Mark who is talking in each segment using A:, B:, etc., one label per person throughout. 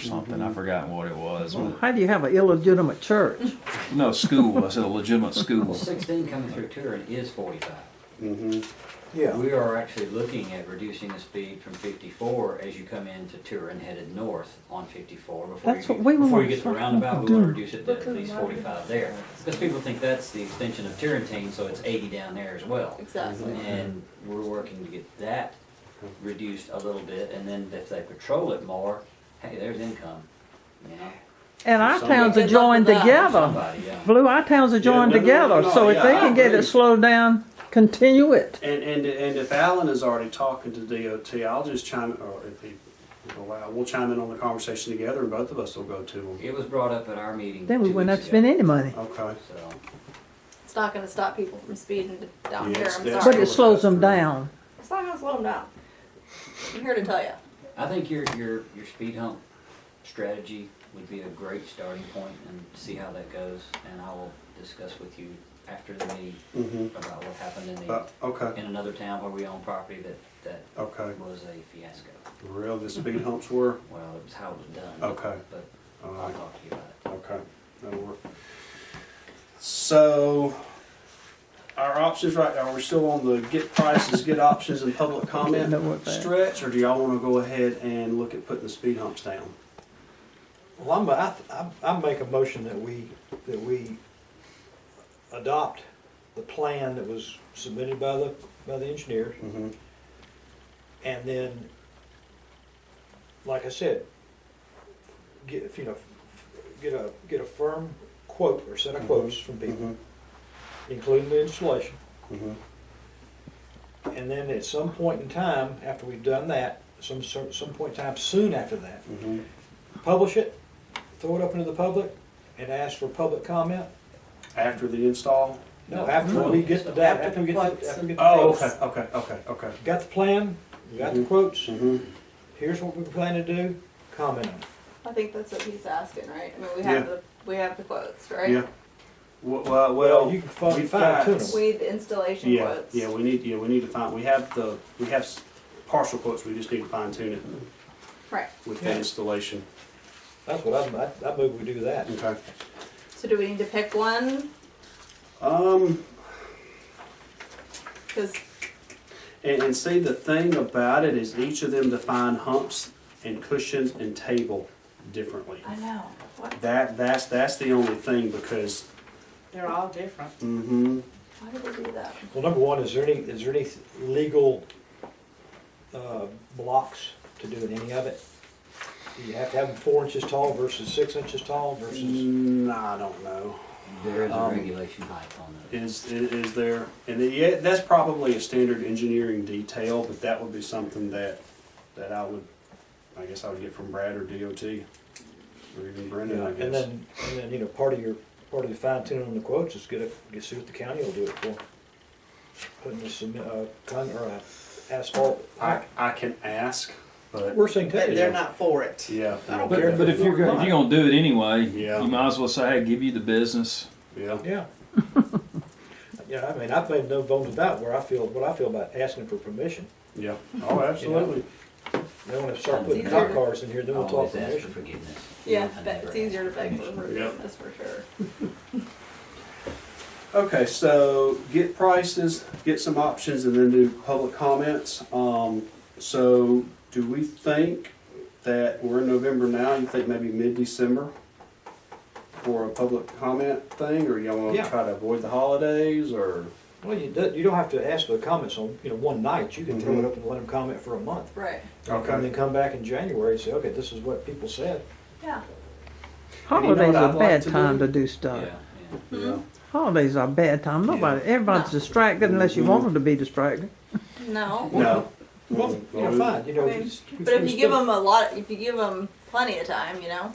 A: or something. I've forgotten what it was. but-
B: How do you have an illegitimate church?
A: No, school. I said a legitimate school.
C: Sixteen coming through Turin is forty-five.
D: Yeah,
C: We are actually looking at reducing the speed from fifty-four as you come into Turin headed north on fifty-four. Before
B: That's
C: you
B: what we
C: get- Before
B: were
C: you get to the
B: fucking
C: roundabout, we wanna
B: doing.
C: reduce it to at least forty-five there. Because people think that's the extension of Turrentine, so it's eighty down there as well.
E: Exactly.
C: And we're working to get that reduced a little bit, and then if they patrol it more, hey, there's income, you know?
B: And our towns are
E: Good luck
B: joined
E: with that.
B: together.
C: Somebody, yeah.
B: Blue, our towns are joined
F: no, no,
B: together,
F: no,
B: so if
F: yeah,
B: they
F: I
B: can get
F: agree.
B: it slowed down, continue it.
F: And, and, and if Alan is already talking to DOT, I'll just chime, or if he allow, we'll chime in on the conversation together and both of us will go to him.
C: It was brought up at our meeting.
B: Then we
C: two
B: wouldn't have
C: weeks
B: spent
C: ago,
B: any money.
F: Okay.
C: So.
E: It's not gonna stop people from speeding down
F: Yeah,
E: here,
F: it's-
E: I'm
F: that's-
B: But
E: sorry.
B: it slows them down.
E: It's not gonna slow them down. I'm here to tell you.
C: I think your, your, your speed hump strategy would be a great starting point and see how that goes. And I will discuss with you after the meeting
F: Mm-hmm.
C: about what happened in
F: Uh,
C: the,
F: okay,
C: in another town where we own property that,
F: okay.
C: that was a fiasco.
F: Real, the speed humps were,
C: Well, it was how it was done.
F: Okay.
C: But
F: all
C: I'll
F: right,
C: talk to you about it.
F: okay, that'll work. So, our options right now, are we still on the get prices, get options and public comment
B: That worked bad.
F: stretch? Or do y'all wanna go ahead and look at putting the speed humps down?
D: well, I'm, I, I- I make a motion that we, that we adopt the plan that was submitted by the, by the engineers.
F: Mm-hmm.
D: And then, like I said, get, you know, get a, get a firm quote or set of quotes from people, including the installation.
F: Mm-hmm.
D: And then at some point in time, after we've done that, some, cer- some point in time soon after that,
F: Mm-hmm.
D: publish it, throw it up into the public, and ask for public comment.
F: After the install?
D: No, after we get the data, after we get, the- after we get the
F: Oh,
D: quotes.
F: okay, okay, okay, okay.
D: Got the plan, you got the
F: Mhm.
D: quotes,
F: Mm-hmm.
D: here's what we plan to do, comment on it.
E: I think that's what he's asking, right? I mean, we
F: Yeah.
E: have the, we have the quotes, right?
F: Yeah. Well, well,
D: You can fine
F: we've
D: fine tune
F: got-
D: them.
E: We, the installation
F: yeah,
E: quotes.
F: yeah, we need, yeah, we need to find, we have the, we have s- partial quotes, we just need to fine tune it
E: Right,
F: with the
D: Yeah.
F: installation.
D: That's what I'm- I, I move we do that.
F: Okay.
E: so do we need to pick one?
F: Um,
E: Cause
F: and, and see, the thing about it is each of them define humps and cushions and table differently.
E: I know, what,
F: That, that's, that's the only thing because,
G: They're all different.
F: mm-hmm,
E: why did we do that?
D: Well, number one, is there any, is there any legal, uh, blocks to doing any of it? Do you have to have them four inches tall versus six inches tall
F: Mm-hmm.
D: versus?
F: nah, I don't know.
C: There is a
F: Um,
C: regulation hike on those.
F: is, is is there, and it- yeah, that's probably a standard engineering detail, but that would be something that, that I would, I guess I would get from Brad or DOT, or even Brendan, I
D: And
F: guess.
D: then, and then, you know, part of your, part of the fine tuning on the quotes is get a, get, see what the county will do it for. Putting this, uh, con, or uh, asphalt,
F: I, I can ask, but,
D: worst thing
G: But
D: to
G: they're
D: do.
G: not for it.
F: yeah,
D: I don't care.
A: But, but if you're go- if you're gonna do it anyway,
F: Yeah.
A: you might as well say, "Hey, give you the business."
F: yeah,
D: Yeah. Yeah, I mean, I've made no bones about where I feel, what I feel about asking for permission.
F: yeah, oh, absolutely.
D: They wanna start
C: It's
D: putting
E: easier.
D: cop cars in here, then we'll
C: Always
D: talk
C: ask for
D: permission.
C: forgiveness.
E: Yeah,
C: I
E: but it's
C: never
E: easier to
C: ask for
E: beg for
C: permission.
E: permission, that's for sure.
F: Okay, so get prices, get some options, and then do public comments. Um, so do we think that we're in November now, you think maybe mid-December for a public comment thing, or y'all wanna
D: Yeah.
F: try to avoid the holidays, or?
D: Well, you do, you don't have to ask for comments on, you know, one night, you can throw it
F: Mhm.
D: up and let them comment for a month.
E: Right,
D: And then come back in January and say, okay, this is what people said.
E: yeah.
F: And you know what
B: Holidays are
F: I'd
B: a
F: like
B: bad
F: to
B: time
F: do?
B: to do
C: Yeah,
B: stuff.
C: yeah.
D: Mm-hmm.
F: Yeah.
B: Holidays are a bad time. Nobody, everybody's
E: No.
B: distracted unless you
F: Mhm.
B: want them to be distracted.
E: No,
F: No. Mm-hmm.
D: Well, you know, fine, you know.
E: I mean,
D: it's-
E: but if
D: it's
E: you give
D: been-
E: them a lot, if you give them plenty of time, you know,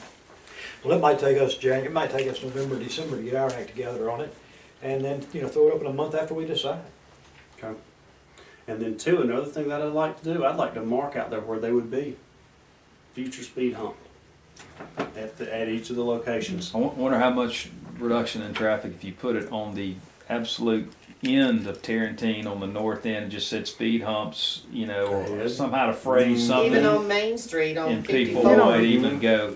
D: Well, it might take us Jan, it might take us November, December to get our act together on it, and then, you know, throw it up in a month after we decide.
F: Okay. And then two, another thing that I'd like to do, I'd like to mark out there where they would be, future speed hump, at the, at each of the locations.
A: I wo- wonder how much reduction in traffic if you put it on the absolute end of Tarantine on the north end just said speed humps, you know, or somehow to phrase something.
H: Even on Main Street on
A: and
H: fifty-four.
A: people would even go,